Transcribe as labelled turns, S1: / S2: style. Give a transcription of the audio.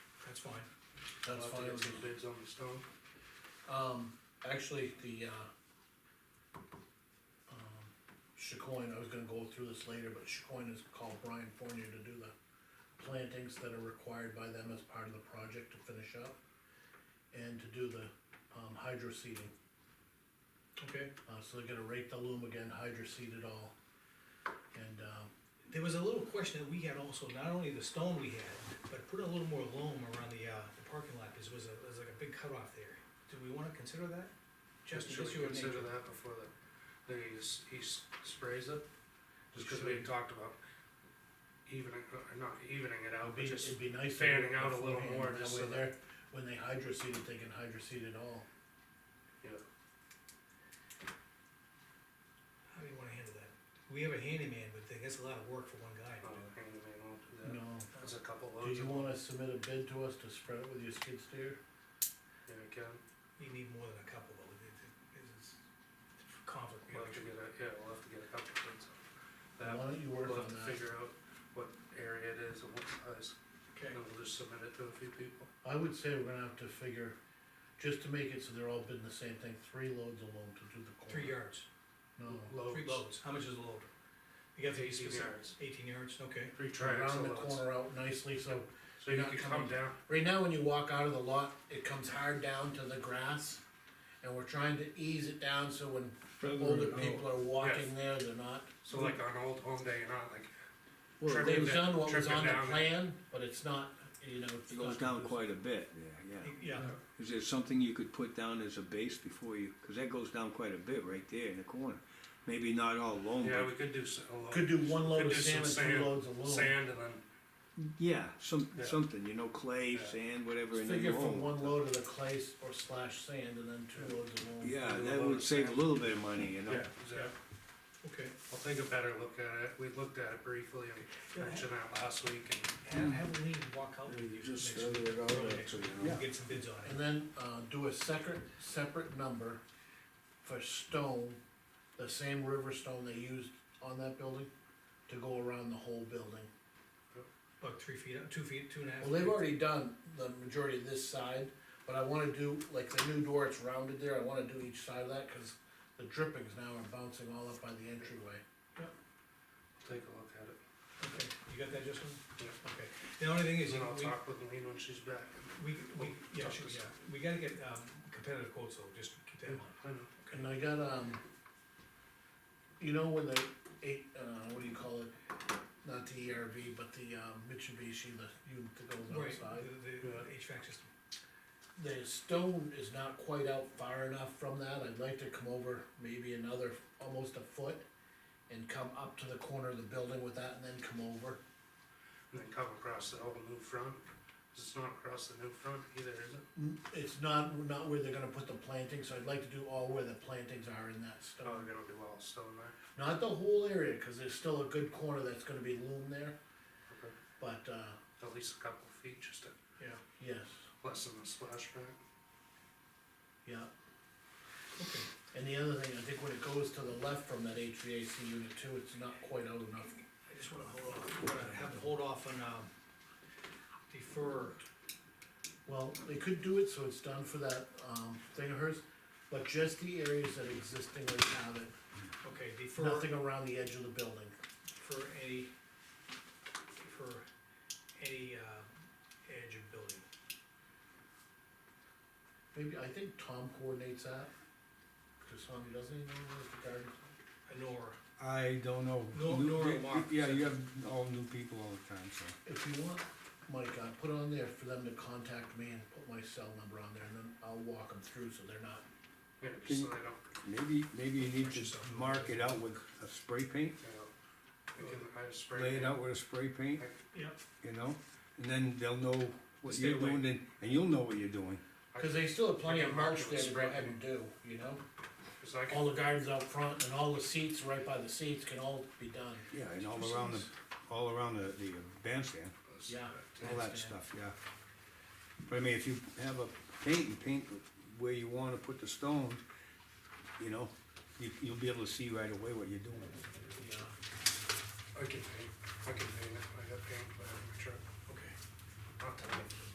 S1: fine, that's
S2: I'll have to
S1: fine.
S2: get some bids on the stone.
S1: Um, actually, the, uh, um, Chicoine, I was gonna go through this later, but Chicoine has called Brian Fournier to do the plantings that are required by them as part of the project to finish up. And to do the, um, hydro seeding,
S3: Okay,
S1: uh, so they're gonna rake the loom again, hydro seed it all. And, um,
S3: there was a little question that we had also, not only the stone we had, but put a little more loam around the, uh, the parking lot, because it was a, it was like a big cutoff there. Do we wanna consider that? Just
S2: Should
S3: just
S2: we
S3: your
S2: consider
S3: nature.
S2: that before the, then he, s- he s- sprays it? Just cause we
S1: Sure.
S2: had talked about evening, uh, not evening it out,
S1: It'd
S2: but
S1: be,
S2: just,
S1: it'd be nice. to
S2: fanning
S1: do it
S2: out a little
S1: beforehand,
S2: more
S1: that
S2: just
S1: way
S2: so that-
S1: they're- When they hydro seed it, they can hydro seed it all.
S2: yeah.
S3: How do you wanna handle that? We have a handyman, but that's a lot of work for one guy to
S2: no,
S3: do.
S2: handyman won't do that.
S1: No.
S2: That's a couple
S1: Do
S2: loads
S1: you
S2: of,
S1: wanna submit a bid to us to spread it with your skid steer?
S2: yeah, we can,
S3: You need more than a couple though, it, it, it's it's conflict.
S2: we'll have to get a, yeah, we'll have to get a couple bids on that.
S1: Why don't you work
S2: We'll
S1: on
S2: have to
S1: that?
S2: figure out what area it is and what size,
S3: Okay,
S2: and we'll just submit it to a few people.
S1: I would say we're gonna have to figure, just to make it so they're all bidding the same thing, three loads of loam to do the corner.
S3: three yards,
S1: No,
S3: three loads, how much is a load? You got to be
S2: Eighteen
S3: specific.
S2: yards.
S3: Eighteen yards, okay.
S2: Three triangles
S1: round the
S2: of loads,
S1: corner out nicely, so,
S2: so you
S1: Not
S2: can come
S1: coming.
S2: down,
S1: right now when you walk out of the lot, it comes hard down to the grass. And we're trying to ease it down so when older people are walking there, they're not.
S2: so like on Old Home Day, you're not like
S1: Well,
S2: Tripping
S1: they've
S2: it-
S1: done what was
S2: tripping
S1: on the
S2: down there.
S1: plan, but it's not, you know. it's
S4: It goes down
S1: not-
S4: quite a bit, yeah, yeah.
S3: Yeah,
S4: Is there something you could put down as a base before you, cause that goes down quite a bit right there in the corner. Maybe not all loam,
S2: Yeah,
S4: but,
S2: we could do s- a load.
S1: Could do one load
S2: Could
S1: of
S2: do some
S1: sand and three
S2: sand-
S1: loads of loam.
S2: Sand and then,
S4: yeah, some,
S2: Yeah.
S4: something, you know, clay,
S2: Yeah.
S4: sand, whatever,
S1: Let's
S4: and then
S1: Figure from
S4: loam.
S1: one load of the clay s- or slash sand and then two loads of loam.
S4: Yeah,
S2: do a
S4: that
S2: load
S4: would
S2: of
S4: save a
S2: sand.
S4: little bit of money, you know?
S2: yeah, exactly.
S3: okay.
S2: I'll take a better look at it, we looked at it briefly and
S3: Yeah.
S2: mentioned that last week and
S3: Have, have Lean walk out with you.
S5: Just
S3: next
S5: spread
S3: week.
S5: it out,
S3: Okay.
S5: actually, you know.
S3: We'll Get some bids on it.
S1: And then, uh, do a separate, separate number for stone, the same river stone they used on that building, to go around the whole building.
S3: About three feet, up, two feet, two and a half.
S1: Well, they've
S3: feet.
S1: already done the majority of this side, but I wanna do, like, the new door, it's rounded there, I wanna do each side of that, cause the drippings now are bouncing all up by the entryway.
S2: take a look at it.
S3: Okay, you got that, Justin?
S2: Yeah.
S3: Okay, the only thing is,
S2: And I'll
S3: we,
S2: talk with Lean when she's back.
S3: we, we,
S2: we'll
S3: yeah,
S2: talk
S3: sure,
S2: this
S3: yeah, we gotta get, um, competitive quotes, though, just keep that in mind.
S2: I know.
S1: And I got, um, you know, when the eight, uh, what do you call it? Not the ERV, but the, um, Mitsubishi, the unit that goes
S3: Right,
S1: outside.
S3: the, the HVAC system,
S1: The stone is not quite out far enough from that, I'd like to come over maybe another, almost a foot. And come up to the corner of the building with that and then come over.
S2: And then come across the whole new front, 'cause it's not across the new front either, is it?
S1: Mm, It's not, not where they're gonna put the plantings, so I'd like to do all where the plantings are in that
S2: Oh,
S1: stone.
S2: they're gonna do all stone there,
S1: Not the whole area, cause there's still a good corner that's gonna be loom there,
S2: okay,
S1: but, uh,
S2: at least a couple of feet, just to
S3: yeah,
S1: yes.
S2: lessen the splashback.
S1: Yeah,
S3: okay.
S1: and the other thing, I think when it goes to the left from that HVAC unit too, it's not quite out enough.
S3: I just wanna hold off, we're gonna have to hold off on, um, defer,
S1: Well, they could do it, so it's done for that, um, thing of hers, but just the areas that existingly have it,
S3: okay, defer.
S1: nothing around the edge of the building.
S3: for any, for any, uh, edge of building.
S1: Maybe, I think Tom coordinates that, because Tom, he doesn't even know what the garden.
S3: Nor,
S5: I don't know.
S3: No-
S5: New-
S3: nor
S5: y-
S3: Mark.
S5: Yeah, you have all new people all the time, so.
S1: If you want, Mike, I put on there for them to contact me and put my cell number on there, and then I'll walk them through, so they're not,
S2: Yeah,
S5: Can
S2: just
S5: you-
S2: so they don't,
S5: Maybe, maybe you need to
S3: Yourself.
S5: mark it out with a spray paint,
S2: you know, we can, I just spray.
S5: lay it out with a spray paint,
S3: yep,
S5: you know? And then they'll know what
S2: Stay
S5: you're
S2: away.
S5: doing and, and you'll know what you're doing.
S1: cause they still have plenty of
S2: I can mark
S1: mulch
S2: it
S1: there
S2: with
S1: to go
S2: spray
S1: ahead and do, you know?
S2: 'Cause I can
S1: all the gardens out front and all the seats right by the seats can all be done.
S5: Yeah, and all around the, all around the, the bandstand,
S2: Let's-
S1: Yeah.
S5: all that stuff, yeah. But I mean, if you have a paint and paint where you wanna put the stone, you know, you, you'll be able to see right away what you're doing.
S1: Yeah.
S2: I can paint, I can paint it, I got paint, but I'm a truck,
S3: okay.
S2: I'll tell you.